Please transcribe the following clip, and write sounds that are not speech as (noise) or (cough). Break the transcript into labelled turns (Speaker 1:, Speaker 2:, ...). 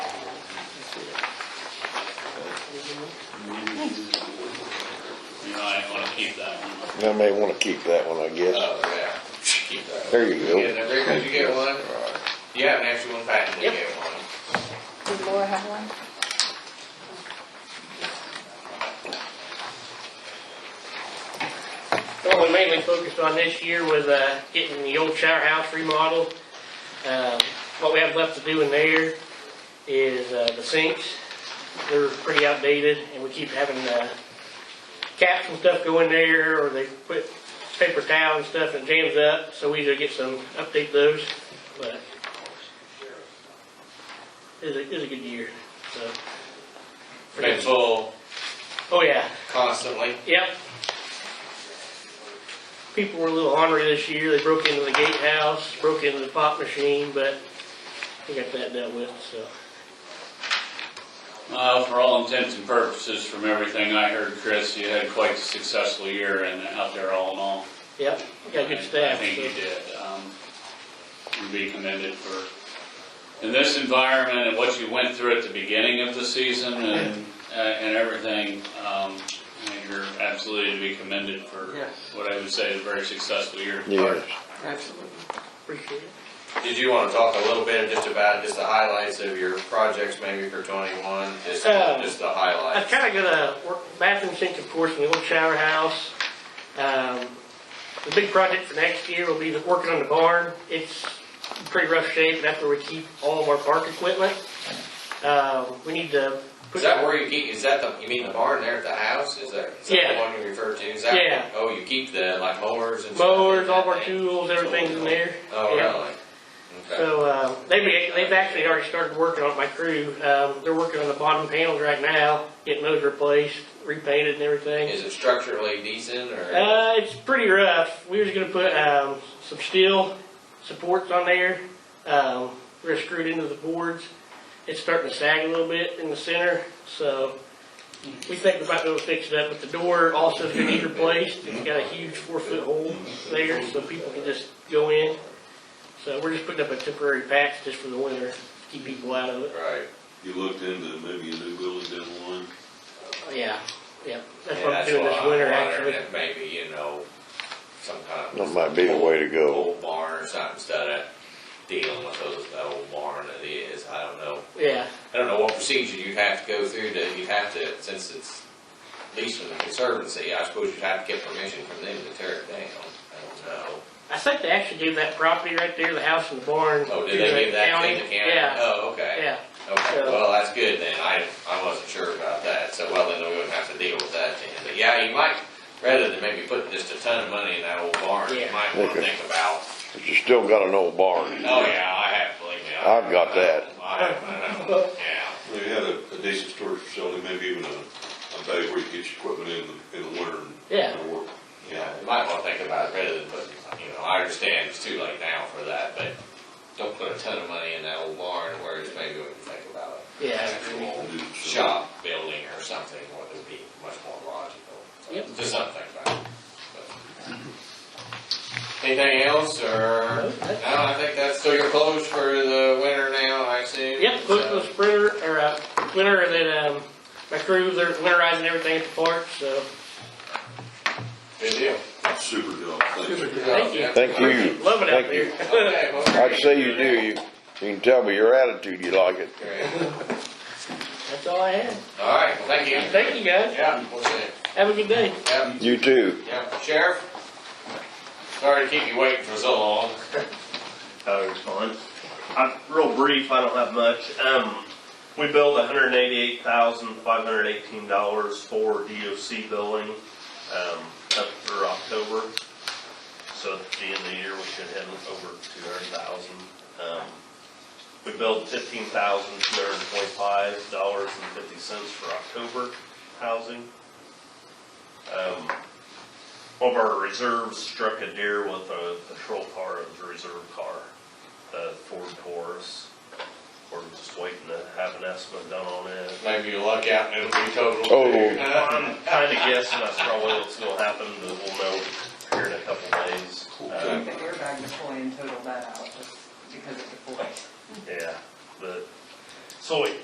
Speaker 1: I may wanna keep that one, I guess.
Speaker 2: Oh, yeah. Keep that.
Speaker 1: There you go.
Speaker 2: Yeah, now, there goes, you get one. You have an extra one, Patty, we
Speaker 3: Yep.
Speaker 2: get one.
Speaker 3: Did Laura have one?
Speaker 4: Well, we mainly focused on this year with uh, getting the old shower house remodeled. Um, What we have left to do in there is uh, the sinks. They're pretty outdated, and we keep having uh, caps and stuff go in there, or they put paper towel and stuff and jams up, so we either get some, update those, but it was a, it was a good year, so.
Speaker 2: Been full
Speaker 4: Oh, yeah.
Speaker 2: constantly.
Speaker 4: Yep. People were a little ornery this year. They broke into the gatehouse, broke into the pop machine, but we got that dealt with, so.
Speaker 5: Uh, for all intents and purposes, from everything I heard, Chris, you had quite a successful year and out there all in all.
Speaker 4: Yep, we got good
Speaker 5: I- I
Speaker 4: staff,
Speaker 5: think you
Speaker 4: so.
Speaker 5: did. Um, you'd be commended for, in this environment and what you went through at the beginning of the season
Speaker 4: (laughs)
Speaker 5: and, uh, and everything, um, I think you're absolutely to be commended for
Speaker 2: Yes.
Speaker 5: what I would say is a very successful year.
Speaker 1: Yes.
Speaker 2: Absolutely.
Speaker 4: Appreciate it.
Speaker 2: Did you want to talk a little bit just about just the highlights of your projects maybe for twenty-one, just,
Speaker 4: Uh,
Speaker 2: just the
Speaker 4: I've
Speaker 2: highlights?
Speaker 4: kind of got a work- bathroom sink, of course, in the old shower house. Um, The big project for next year will be the- working on the barn. It's in pretty rough shape, and that's where we keep all of our park equipment. Um, We need to. put-
Speaker 2: Is that where you keep, is that the, you mean the barn there at the house? Is that, is that the
Speaker 4: Yeah.
Speaker 2: one you referred to? Is that-
Speaker 4: Yeah.
Speaker 2: Oh, you keep the, like mowers and stuff? in
Speaker 4: Mowers, all
Speaker 2: that
Speaker 4: of our
Speaker 2: thing?
Speaker 4: tools, everything's in there.
Speaker 2: Oh,
Speaker 4: Yeah.
Speaker 2: really? Okay.
Speaker 4: So, uh, they've, they've actually already started working on it, my crew, um, they're working on the bottom panels right now, getting those replaced, repainted and everything.
Speaker 2: Is it structurally decent or?
Speaker 4: Uh, it's pretty rough, we was gonna put, um, some steel supports on there, um, we're screwed into the boards. It's starting to sag a little bit in the center, so we think we might be able to fix it up, but the door also is gonna need replaced, it's got a huge four-foot hole there, so people can just go in. So we're just putting up a temporary patch just for the winter, to keep people out of it.
Speaker 2: Right.
Speaker 6: You looked into maybe a new building down the line?
Speaker 4: Yeah, yeah, that's
Speaker 2: Yeah,
Speaker 4: what I'm
Speaker 2: that's
Speaker 4: doing
Speaker 2: what
Speaker 4: this
Speaker 2: I'm
Speaker 4: winter,
Speaker 2: wondering,
Speaker 4: actually.
Speaker 2: if maybe, you know, some kind
Speaker 1: That
Speaker 2: of
Speaker 1: might be the way to go.
Speaker 2: old barn or something instead of dealing with those, that old barn that is, I don't know.
Speaker 4: Yeah,
Speaker 2: I don't know what procedure you'd have to go through to, you'd have to, since it's leased from the conservancy, I suppose you'd have to get permission from them to tear it down. I don't know.
Speaker 4: I think they actually gave that property right there, the house and the barn.
Speaker 2: Oh,
Speaker 4: to
Speaker 2: did they
Speaker 4: the
Speaker 2: give that to the county?
Speaker 4: Yeah,
Speaker 2: Oh, okay.
Speaker 4: yeah,
Speaker 2: Okay,
Speaker 4: So-
Speaker 2: well, that's good then, I, I wasn't sure about that, so well, then we wouldn't have to deal with that then, but yeah, you might, rather than maybe putting just a ton of money in that old barn, you
Speaker 4: Yeah.
Speaker 2: might wanna
Speaker 1: Okay.
Speaker 2: think about,
Speaker 1: But you still got an old barn.
Speaker 2: oh yeah, I have, believe me. I-
Speaker 1: I've got that.
Speaker 2: I, I know, yeah.
Speaker 6: They had a a decent storage facility, maybe even a, a bay where you get your equipment in, the- in the winter and.
Speaker 4: Yeah.
Speaker 6: and work.
Speaker 2: Yeah, you might wanna think about it rather than putting, you know, I understand it's too late now for that, but don't put a ton of money in that old barn where it's maybe we can think about an
Speaker 4: yeah.
Speaker 2: actual
Speaker 6: Do some-
Speaker 2: shop building or something, what would be much more logical. So,
Speaker 4: Yep.
Speaker 2: Just something about it. but. Anything else or, no,
Speaker 4: that's-
Speaker 2: I think that's, so you're closed for the winter now, I assume?
Speaker 4: Yep, close to the sprinter, or, uh, winter, and then, um, my crew, they're winterizing everything at the park, so.
Speaker 2: Good deal.
Speaker 6: Super job, thanks.
Speaker 4: Thank you.
Speaker 1: Thank you.
Speaker 4: Loving it out
Speaker 1: Thank you.
Speaker 4: there. (laughs)
Speaker 2: Okay, well,
Speaker 1: I'd say you do, you, you can tell by your attitude you like it.
Speaker 2: Great.
Speaker 4: That's all I had.
Speaker 2: All right, well, thank you.
Speaker 4: Thank you, guys.
Speaker 2: Yeah, we'll see.
Speaker 4: Have a good day.
Speaker 2: Yep.
Speaker 1: You too.
Speaker 2: Yeah, Sheriff? Sorry to keep you waiting for so long.
Speaker 7: I'll respond. Oh, I'm real brief, I don't have much. Um, we billed hundred and eighty-eight thousand, five hundred and eighteen dollars for DOC billing, um, up through October. So at the end of the year, we should have over two hundred thousand. Um, we billed fifteen thousand, two hundred and twenty-five dollars and fifty cents for October housing. Um, one of our reserves struck a deer with a patrol car, it was a reserve car, a Ford Taurus. We're just waiting to have an estimate done on it.
Speaker 2: Maybe you luck out and it'll be total.
Speaker 1: Oh.
Speaker 7: I'm kinda guessing that's probably what's gonna happen, but we'll know here in a couple days.
Speaker 6: Okay.
Speaker 7: Um,
Speaker 8: Look at your bag before and total that out, just because it's a voice.
Speaker 7: Yeah, but, so